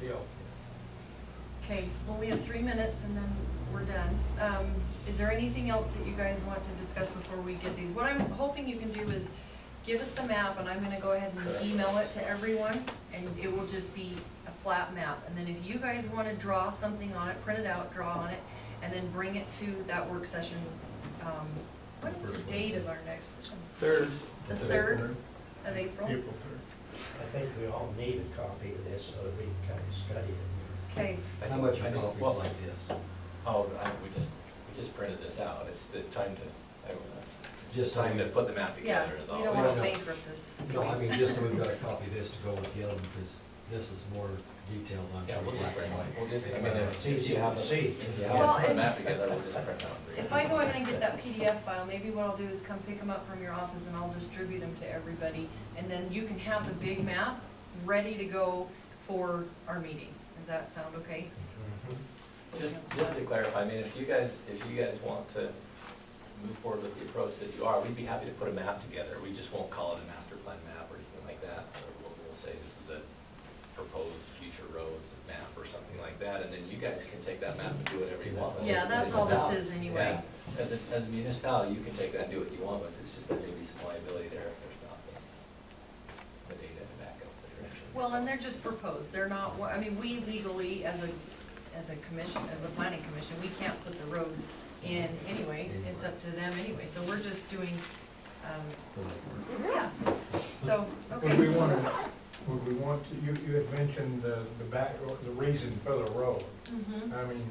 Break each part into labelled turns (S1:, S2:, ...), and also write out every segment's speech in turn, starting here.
S1: deal.
S2: Okay, well, we have three minutes and then we're done. Um, is there anything else that you guys want to discuss before we get these? What I'm hoping you can do is give us the map and I'm gonna go ahead and email it to everyone and it will just be a flat map. And then if you guys wanna draw something on it, print it out, draw on it, and then bring it to that work session. Um, what is the
S3: First one.
S2: date of our next one?
S3: Third.
S2: The third of April?
S3: April third.
S4: I think we all need a copy of this so that we can kind of study it.
S2: Okay,
S5: I
S6: How
S5: think-
S6: much
S5: I think
S6: about
S5: we
S6: what
S5: just-
S6: like this?
S5: Oh, I, we just, we just printed this out, it's the time to, I don't know, it's just
S6: Just
S5: time to
S6: like-
S5: put the map
S2: yeah,
S5: together is all.
S2: you don't
S6: We
S2: wanna
S6: don't know.
S2: bankrupt this.
S6: No, I mean, just so we've got a copy of this to go with the other, one, because this is more detailed on.
S5: Yeah, we'll just
S6: black
S5: print
S6: and
S5: one,
S6: white.
S5: we'll just, I mean, if
S4: It's
S5: if you have us,
S4: easy to see.
S5: if you have
S2: Well,
S5: us put the
S2: and-
S5: map together, we'll just print out.
S2: If I go ahead and get that PDF file, maybe what I'll do is come pick them up from your office and I'll distribute them to everybody. And then you can have the big map ready to go for our meeting. Does that sound okay?
S1: Mm-hmm.
S5: Just, just to clarify, I mean, if you guys, if you guys want to move forward with the approach that you are, we'd be happy to put a map together. We just won't call it a master plan map or anything like that. Or We'll, we'll say this is a proposed future roads map or something like that, and then you guys can take that map and do whatever you want. with it.
S2: Yeah, that's all this is
S5: Yeah,
S2: anyway.
S5: as a, as a municipality, you can take that and do what you want with it, it's just that maybe some liability there if there's not the, the data to back up the direction.
S2: Well, and they're just proposed. They're not, wa- I mean, we legally, as a, as a commission, as a planning commission, we can't put the roads in anyway. It's up to them anyway. So we're just doing, um,
S6: For like-
S2: yeah. So,
S1: Would we
S2: okay.
S1: want, to- would we want to, you, you had mentioned the, the back, the reason for the road.
S2: Mhm.
S1: I mean,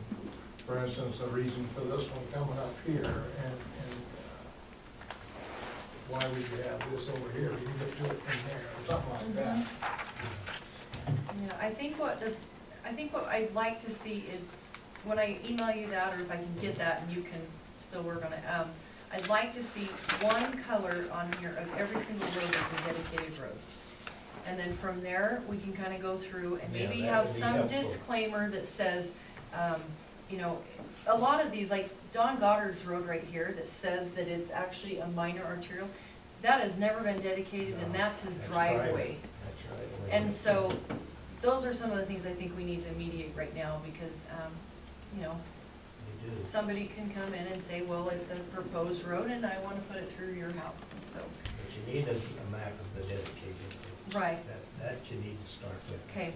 S1: for instance, the reason for this one coming up here and, and uh, why would you have this over here? You can get to it from there or something like
S2: Mm-hmm.
S1: that.
S2: Yeah, I think what the, I think what I'd like to see is, when I email you that, or if I can get that and you can still work on it, um, I'd like to see one color on here of every single road that's a dedicated road. And then from there, we can kinda go through and
S4: Yeah,
S2: maybe
S4: that
S2: have
S4: would be
S2: some
S4: helpful.
S2: disclaimer that says, um, you know, a lot of these, like Don Goddard's road right here that says that it's actually a minor arterial, that has never been dedicated and
S4: No,
S2: that's his
S4: that's private.
S2: driveway.
S4: That's right.
S2: And so, those are some of the things I think we need to mediate right now, because, um, you know,
S4: You do.
S2: somebody can come in and say, well, it says proposed road, and I wanna put it through your house, and so,
S4: But you need a a map of the dedicated, road.
S2: right,
S4: that, that you need to start with.
S2: Okay.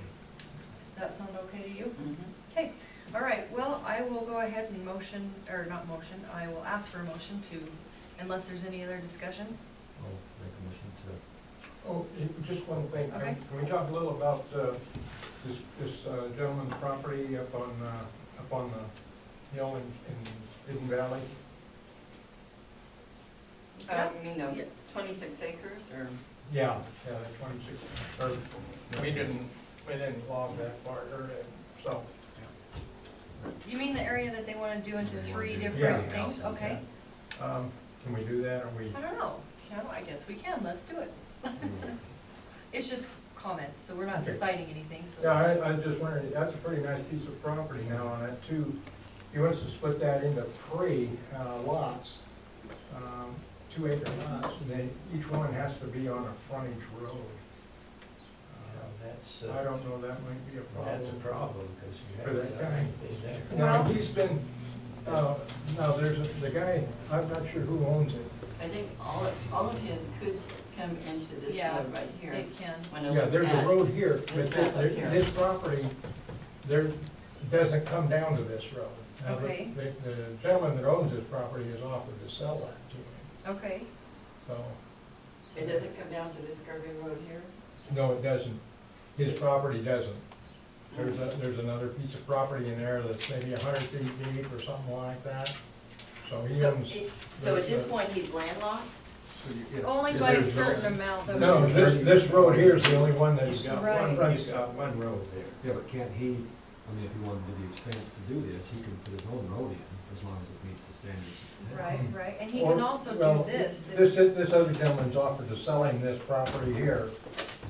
S2: does that sound okay to you?
S7: Mm-hmm.
S2: Okay, all right, well, I will go ahead and motion, or not motion, I will ask for a motion to, unless there's any other discussion?
S6: I'll make a motion to,
S1: Oh, it- just one thing. Can
S2: Okay.
S1: can we talk a little about uh, this, this uh, gentleman's property up on, uh, up on the hill in, in Hidden Valley?
S2: Yeah.
S7: Uh, you mean the
S2: Yeah.
S7: twenty-six acres or?
S1: Yeah, yeah, the twenty-six, or, we didn't, we didn't log that part, or, uh, so,
S2: You mean the area that they wanna do into three
S6: Yeah.
S2: different things,
S6: Yeah.
S2: okay?
S1: um, can we do that, or we?
S2: I don't know, Can- I guess we can, let's do it. It's just comments, so we're not
S1: Okay.
S2: deciding anything, so. it's
S1: Yeah, I, I was just wondering, that's a pretty nice piece of property now on it too. He wants to split that into three uh, lots, um, two acre lots, and then each one has to be on a frontage road.
S4: Now, That's,
S1: Uh, I
S4: uh,
S1: don't know, that might be a problem.
S4: that's a problem, because you
S1: For
S4: have
S1: that guy.
S4: anything there.
S1: Now,
S2: Well-
S1: he's been, uh, now, there's a- the guy, I'm not sure who owns it.
S7: I think all of, all of his could come into this
S2: Yeah,
S7: road right here.
S2: It can.
S7: When I
S1: Yeah,
S7: look
S1: there's a
S7: at-
S1: road here, but
S7: this map up
S1: there-
S7: here.
S1: this property, there, doesn't come down to this road. Now, the-
S2: Okay.
S1: The the gentleman that owns this property has offered to sell that to me,
S2: Okay,
S1: so,
S7: It doesn't come down to this curvy road here?
S1: no, it doesn't. His property doesn't. There's, a- there's another piece of property in there that's maybe a hundred feet deep or something like that, so Oh, he
S7: So,
S1: owns.
S7: it- so at this
S1: the-
S7: point, he's landlocked?
S2: only by a certain amount though.
S1: No, this, this road here is the only one that's
S4: He's got
S1: got
S2: Right.
S4: one,
S1: frontage.
S4: he's got one road there.
S6: yeah, but can't he, I mean, if he wanted to do the expense to do this, he can put his own road in, as long as it meets the standards. of the town.
S2: Right, right, and he
S1: Or-
S2: can also
S1: well,
S2: do this.
S1: This, this other gentleman's offered to sell him this property here,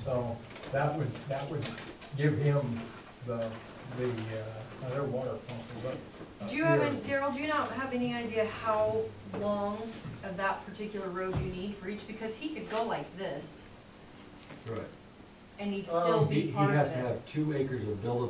S1: so that would, that would give him the, the, uh, other water pump. is up- up
S2: Do you have,
S1: here.
S2: any Daryl, do you not have any idea how long of that particular road you need for each? Because he could go like this
S6: Right.
S2: and he'd still
S1: Um,
S6: He,
S2: be
S6: he
S2: part of it.
S6: has to have two acres of buildable